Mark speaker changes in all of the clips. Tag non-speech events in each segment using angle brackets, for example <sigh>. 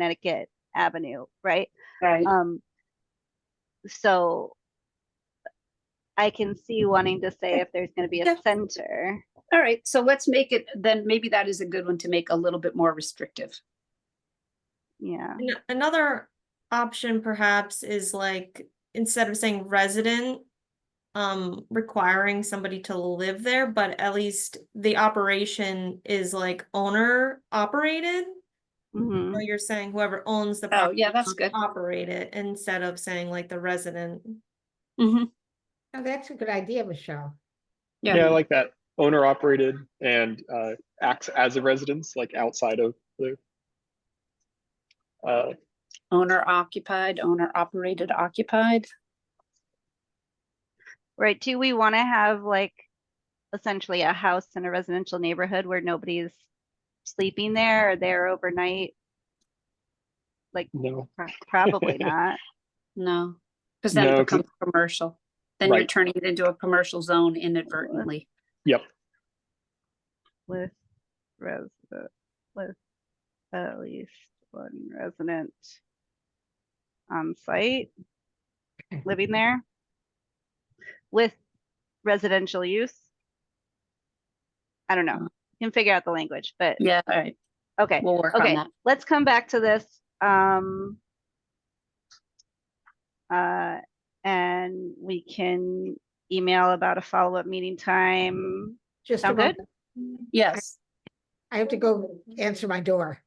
Speaker 1: Connecticut Avenue, right?
Speaker 2: Right.
Speaker 1: Um, so I can see wanting to say if there's gonna be a
Speaker 2: Yeah.
Speaker 1: center.
Speaker 2: All right. So let's make it, then maybe that is a good one to make a little bit more restrictive.
Speaker 1: Yeah,
Speaker 3: An- Another option perhaps is like, instead of saying resident, um, requiring somebody to live there, but at least the operation is like owner operated.
Speaker 1: hmm
Speaker 3: So you're saying whoever owns the.
Speaker 2: Mm-hmm. Oh, yeah,
Speaker 3: property
Speaker 2: that's
Speaker 3: must
Speaker 2: good.
Speaker 3: Operate it instead of saying like the resident.
Speaker 1: Mm-hmm.
Speaker 4: Oh, that's a good idea, Michelle.
Speaker 5: Yeah, I like that. Owner operated and uh, acts as a residence, like outside of the. Uh,
Speaker 2: Owner occupied, owner operated occupied.
Speaker 1: right, do we wanna have like essentially a house in a residential neighborhood where nobody's sleeping there or there overnight?
Speaker 5: no,
Speaker 1: Pro-
Speaker 2: <laughs>
Speaker 1: Probably not.
Speaker 2: No, because then it
Speaker 5: No, 'cause-
Speaker 2: becomes commercial. Then you're
Speaker 5: Right.
Speaker 2: turning it into a commercial zone inadvertently.
Speaker 1: with resident, with at least one resident on site, living
Speaker 2: <laughs>
Speaker 1: there, with residential use. I don't know, You can figure out the language, but,
Speaker 2: Yeah, all right.
Speaker 1: okay,
Speaker 2: Mm. We'll work on
Speaker 1: okay,
Speaker 2: that.
Speaker 1: let's come back to this, um. Uh, and we can email about a follow-up meeting time,
Speaker 4: Just a
Speaker 1: Sound good?
Speaker 4: moment.
Speaker 2: Yes.
Speaker 4: I have to go answer my door.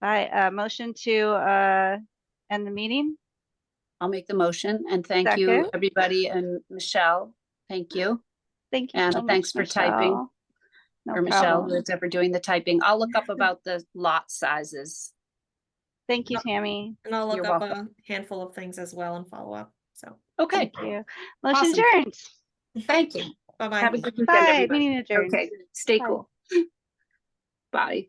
Speaker 1: By uh, motion to uh, end the meeting.
Speaker 2: I'll make the motion and thank you,
Speaker 1: Second.
Speaker 2: everybody, and Michelle, thank you.
Speaker 1: Thank you.
Speaker 2: Anna,
Speaker 1: so much,
Speaker 2: thanks for typing,
Speaker 1: Michelle.
Speaker 2: Or
Speaker 1: No
Speaker 2: Michelle,
Speaker 1: problem.
Speaker 2: who's ever doing the typing. I'll look up about the lot sizes.
Speaker 1: Thank you, Tammy.
Speaker 3: And I'll
Speaker 2: You're
Speaker 3: look up a handful of things as well and follow up, so,
Speaker 2: Okay,
Speaker 1: Thank you. Motion
Speaker 2: Awesome.
Speaker 1: adjourned.
Speaker 4: Thank you.
Speaker 3: <laughs> bye-bye.
Speaker 2: have a good weekend,
Speaker 1: Bye,
Speaker 2: everybody.
Speaker 1: meeting adjourned.
Speaker 2: Okay, stay
Speaker 1: Bye.
Speaker 2: cool. <laughs> Bye.